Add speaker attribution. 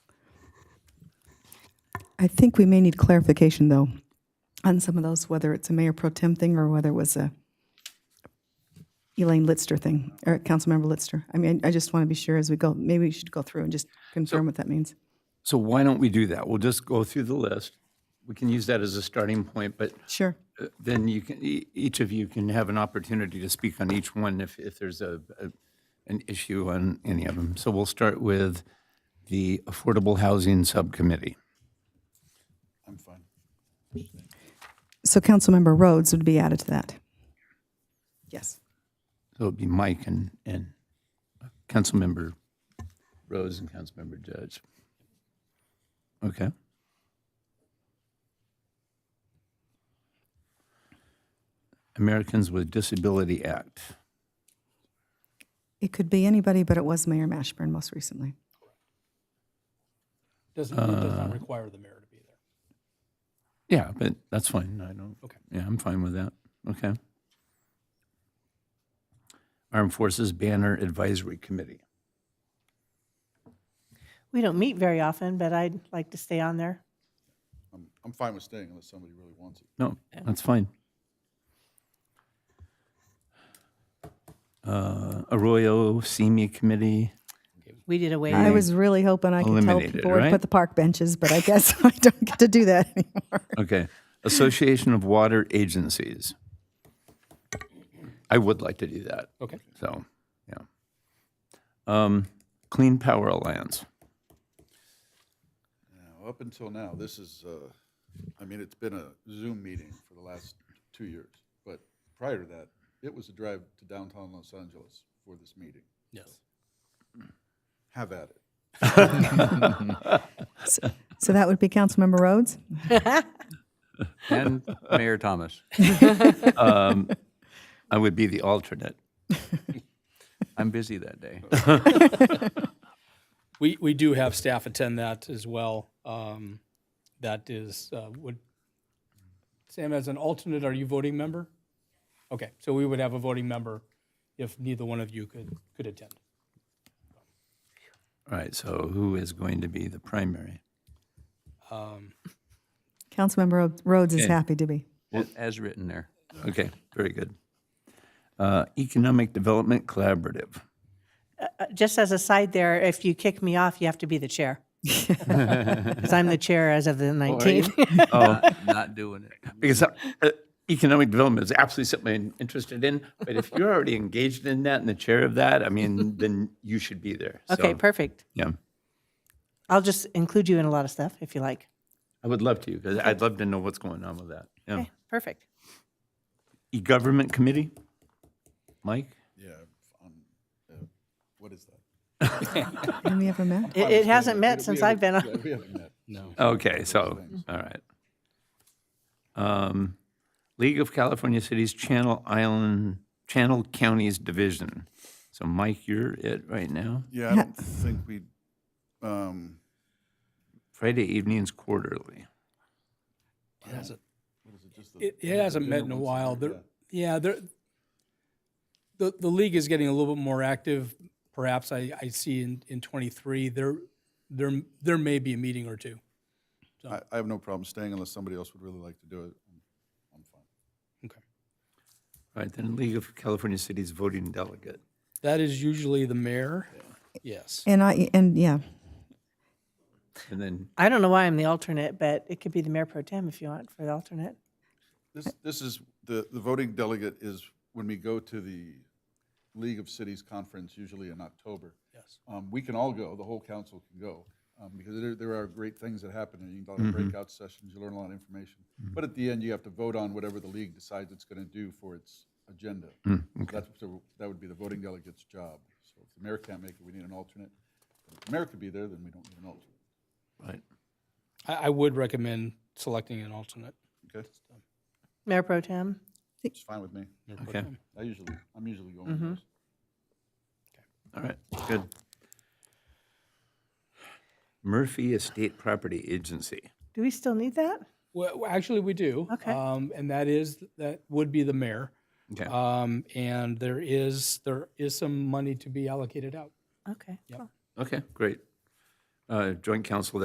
Speaker 1: I think we may need clarification, though, on some of those, whether it's a mayor pro tem thing or whether it was a Elaine Litster thing, or Councilmember Litster. I mean, I just want to be sure as we go, maybe we should go through and just confirm what that means.
Speaker 2: So why don't we do that? We'll just go through the list. We can use that as a starting point, but
Speaker 1: Sure.
Speaker 2: uh, then you can, e- each of you can have an opportunity to speak on each one if, if there's a, a- an issue on any of them. So we'll start with the Affordable Housing Subcommittee.
Speaker 1: So Councilmember Rhodes would be added to that. Yes.
Speaker 2: So it'd be Mike and, and Councilmember Rose and Councilmember Judge. Okay. Americans with Disability Act.
Speaker 1: It could be anybody, but it was Mayor Mashburn most recently.
Speaker 3: Doesn't, it does not require the mayor to be there.
Speaker 2: Yeah, but that's fine. I don't,
Speaker 3: Okay.
Speaker 2: yeah, I'm fine with that. Okay. Armed Forces Banner Advisory Committee.
Speaker 4: We don't meet very often, but I'd like to stay on there.
Speaker 5: I'm, I'm fine with staying unless somebody really wants it.
Speaker 2: No, that's fine. Uh, Arroyo CME Committee.
Speaker 4: We did away.
Speaker 1: I was really hoping I could tell
Speaker 2: Eliminated,
Speaker 1: people where to
Speaker 2: right?
Speaker 1: put the park benches, but I guess I don't get to do that anymore.
Speaker 2: Okay. Association of Water Agencies. I would like to do that.
Speaker 3: Okay.
Speaker 2: So, yeah. Um, Clean Power Alliance.
Speaker 5: Now, up until now, this is, uh, I mean, it's been a Zoom meeting for the last two years. But prior to that, it was a drive to downtown Los Angeles for this meeting.
Speaker 3: Yes.
Speaker 5: Have at it.
Speaker 1: So that would be Councilmember Rhodes?
Speaker 6: and Mayor Thomas.
Speaker 2: Um, I would be the alternate.
Speaker 6: I'm busy that day.
Speaker 3: We, we do have staff attend that as well. Um, That is, uh, would, Sam, as an alternate, are you voting member? Okay, so we would have a voting member if neither one of you could, could attend.
Speaker 2: All right. So, who is going to be the primary?
Speaker 3: Um,
Speaker 1: Councilmember Rho- Rhodes is
Speaker 2: Okay.
Speaker 1: happy to be.
Speaker 6: As written there.
Speaker 2: Okay. Very good. Uh, Economic Development Collaborative.
Speaker 4: Uh, Just as a side there, if you kick me off, you have to be the chair. Because I'm the chair as of the 19th.
Speaker 6: Not- Not doing it.
Speaker 2: Uh, Because uh, economic development is absolutely something I'm interested in. But if you're already engaged in that and the chair of that, I mean, then you should be there.
Speaker 4: Okay,
Speaker 2: So,
Speaker 4: perfect.
Speaker 2: Yeah.
Speaker 4: I'll just include you in a lot of stuff if you like.
Speaker 2: I would love to, because I'd love to know what's going on with that. Yeah.
Speaker 4: Okay, perfect.
Speaker 2: E-government committee? Mike?
Speaker 5: Yeah, on, uh, what is that?
Speaker 1: Have we ever met?
Speaker 4: It, it hasn't met since I've been
Speaker 5: Yeah,
Speaker 4: on.
Speaker 5: we haven't met.
Speaker 2: Okay, so, all right. Um, League of California Cities Channel Island, Channel Counties Division. So Mike, you're it right now?
Speaker 5: Yeah, I don't think we, um,
Speaker 2: Friday evenings quarterly.
Speaker 3: It, it hasn't met in a while. There, yeah, there, the, the league is getting a little bit more active. Perhaps I, I see in, in twenty-three, there, there, there may be a meeting or two.
Speaker 5: I, I have no problem staying unless somebody else would really like to do it. I'm fine.
Speaker 2: All right, then League of California Cities Voting Delegate.
Speaker 3: That is usually the mayor. Yes.
Speaker 1: And I, and yeah,
Speaker 2: And then,
Speaker 4: I don't know why I'm the alternate, but it could be the mayor pro tem if you want for the alternate.
Speaker 5: This, this is, the, the voting delegate is when we go to the League of Cities Conference, usually in October. Yes. Um, we can all go, the whole council can go, um, because there, there are great things that happen, and you can go to breakout sessions, you learn a lot of information. But at the end, you have to vote on whatever the league decides it's gonna do for its agenda. So That's, so that would be the voting delegate's job. So if the mayor can't make it, we need an alternate. If the mayor could be there, then we don't need an alternate.
Speaker 2: right,
Speaker 3: I, I would recommend selecting an alternate.
Speaker 5: Okay,
Speaker 4: Mayor pro tem?
Speaker 5: it's fine with me.
Speaker 2: okay,
Speaker 5: I usually, I'm usually going. to those.
Speaker 2: all right, good. Murphy Estate Property Agency.
Speaker 4: Do we still need that?
Speaker 3: Well, well, actually, we do.
Speaker 4: Okay.
Speaker 3: Um, and that is, that would be the mayor.
Speaker 2: Okay.
Speaker 3: Um, and there is, there is some money to be allocated out.
Speaker 4: Okay. cool.
Speaker 2: Okay, great. Uh, Joint Council